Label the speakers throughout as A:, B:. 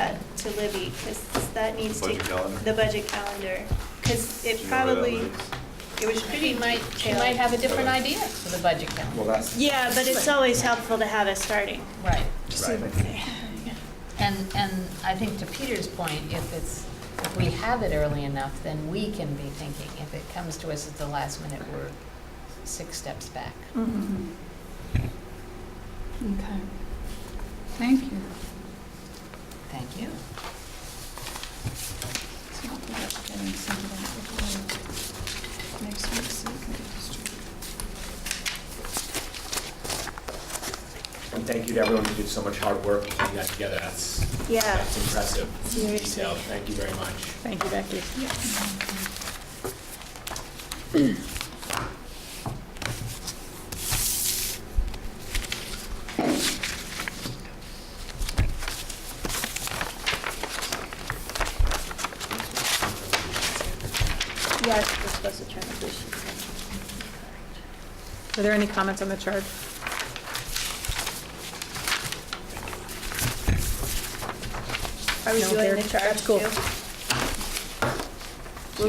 A: to Libby, because that needs to.
B: Budget calendar?
A: The budget calendar, because it
B: Do you know where that
A: probably,
B: lives?
A: it was pretty
C: She might, she
A: detailed.
C: might have a different idea for the budget calendar.
D: Well, that's.
A: Yeah, but it's always helpful to have it starting.
C: Right.
D: Right.
C: And, and I think to Peter's point, if it's, if we have it early enough, then we can be thinking. If it comes to us at the last minute, we're six steps back.
E: Mm-hmm. Okay. Thank you.
C: Thank you.
E: So I'll put up getting some of that before next week, so it can be distributed.
D: And thank you to everyone who did so much hard work in putting that together. That's,
A: Yeah.
D: that's impressive.
A: Seriously.
D: Detailed. Thank you very much.
F: Thank you, Becky.
A: Yes, we're supposed to turn the
F: Are there any comments on the charge?
A: Are we
F: No,
A: doing
F: they're-
A: the charge
F: that's cool.
A: too?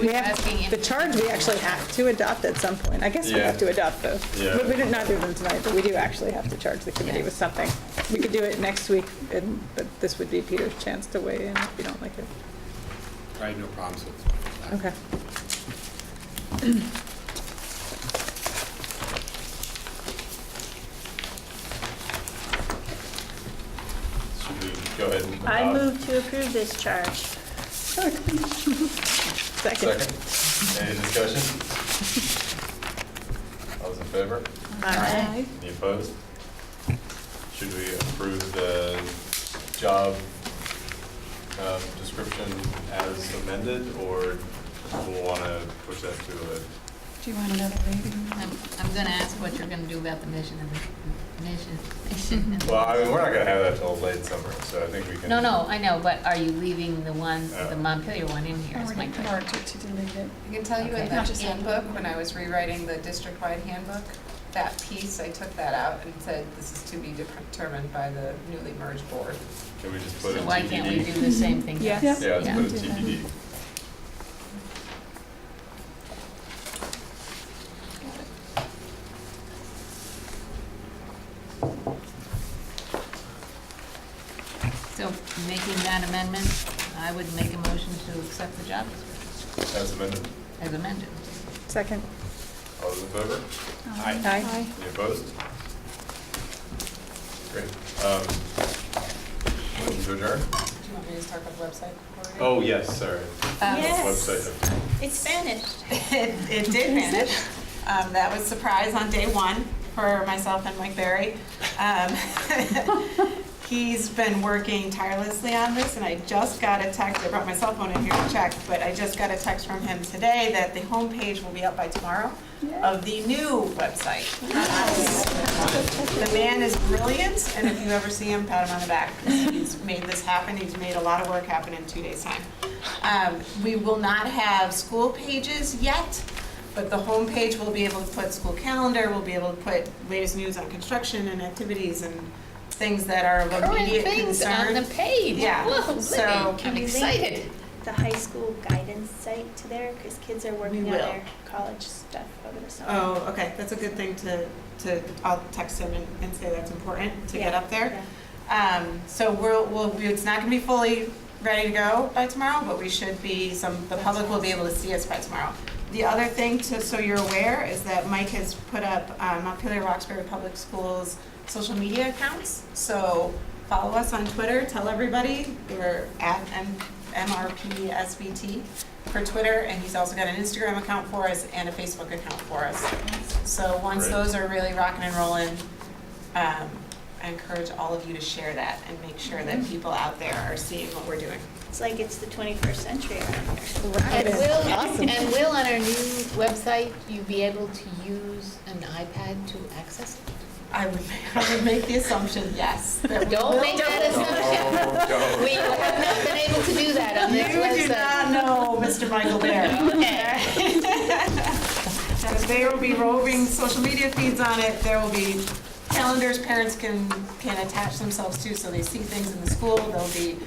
F: We
C: Asking
F: have, the
C: if-
F: charge we actually have to adopt at some point. I guess we
B: Yeah.
F: have to adopt those.
B: Yeah.
F: But we did not do them tonight, but we do actually have to charge the committee
C: Yeah.
F: with something. We could do it next week, and, but this would be Peter's chance to weigh in if you don't like it.
D: I have no problems with that.
F: Okay.
B: Should we go ahead and?
A: I
B: adopt?
A: move to approve this charge.
F: Second.
B: Second. Any discussion? All those in favor?
A: Aye.
B: Any opposed? Should we approve the job um, description as amended, or we'll want to push that to a,
E: Do you want another reading?
C: I'm, I'm gonna ask what you're gonna do about the mission and the, mission, mission. and-
B: well, I mean, we're not going to have that till late summer, so I think we can.
C: No, no, I know, but are you leaving the one, the
B: Uh.
C: Montpelier one in here
E: I
C: is my
E: already
C: question.
E: marked it to delete it.
G: I can tell you
C: Okay.
G: in the
E: Not just
G: handbook,
E: handbook.
G: when I was rewriting the district-wide handbook, that piece, I took that out and said, this is to be determined by the newly merged board.
B: Can we just put it
C: So
B: in
C: why can't we do
B: TBD?
C: the same thing?
F: Yeah.
C: twice?
B: Yeah, let's
C: Yeah.
B: put it in TBD.
C: So making that amendment, I would make a motion to accept the job description
B: As amended.
C: as amended.
F: Second.
B: All those in favor?
D: Aye.
F: Aye.
B: Any opposed? Great. Um, Motion to adjourn?
G: Do you want me
C: Uh,
G: to just talk about the website? before we-
B: Oh, yes, sorry.
G: Um,
A: Yes.
B: Website.
A: It's vanished.
G: It, it did vanish. Um, that was surprise on day one for myself and Mike Barry. Um, he's been working tirelessly on this, and I just got a text. I brought my cell phone in here to check, but I just got a text from him today that the homepage will be up by tomorrow of the new website. The man is brilliant, and if you ever see him, pat him on the back. He's made this happen. He's made a lot of work happen in two days' time. Um, We will not have school pages yet, but the homepage will be able to put school calendar, we'll be able to put latest news on construction and activities and things that are of
C: Current
G: immediate
C: things on the
G: concern.
C: page.
G: Yeah,
C: Whoa,
G: so-
C: Libby,
A: Can
C: I'm
A: we link
C: excited.
A: The high school guidance site to there, because kids are working on
G: will.
A: their college stuff over the summer.
G: Oh, okay, that's a good thing to, to, I'll text him and, and say that's important to get
A: Yeah,
G: up there.
A: yeah.
G: Um, so we'll, we'll, be- it's not gonna be fully ready to go by tomorrow, but we should be, some, the public will be able to see us by tomorrow. The other thing, to, so you're aware, is that Mike has put up, um, Montpelier Roxbury Public Schools' social media accounts. So follow us on Twitter, tell everybody, we're at M- MRPSBT for Twitter, and he's also got an Instagram account for us and a Facebook account for us. So once
B: Great.
G: those are really rocking and rolling, um, I encourage all of you to share that and make sure that people out there are seeing what we're doing.
A: It's like it's the 21st century around here.
C: And
F: Rocketing. Awesome.
C: will, and will on our new website, you be able to use an iPad to access it?
G: I would, I would make the assumption, yes. that we
C: Don't
G: will-
C: make that assumption.
B: Oh,
C: We have not been able to do that on
G: You
C: this website.
G: do not know Mr. Michael Barry. Okay. There will be roving social media feeds on it, there will be calendars parents can, can attach themselves to, so they see things in the school, there'll be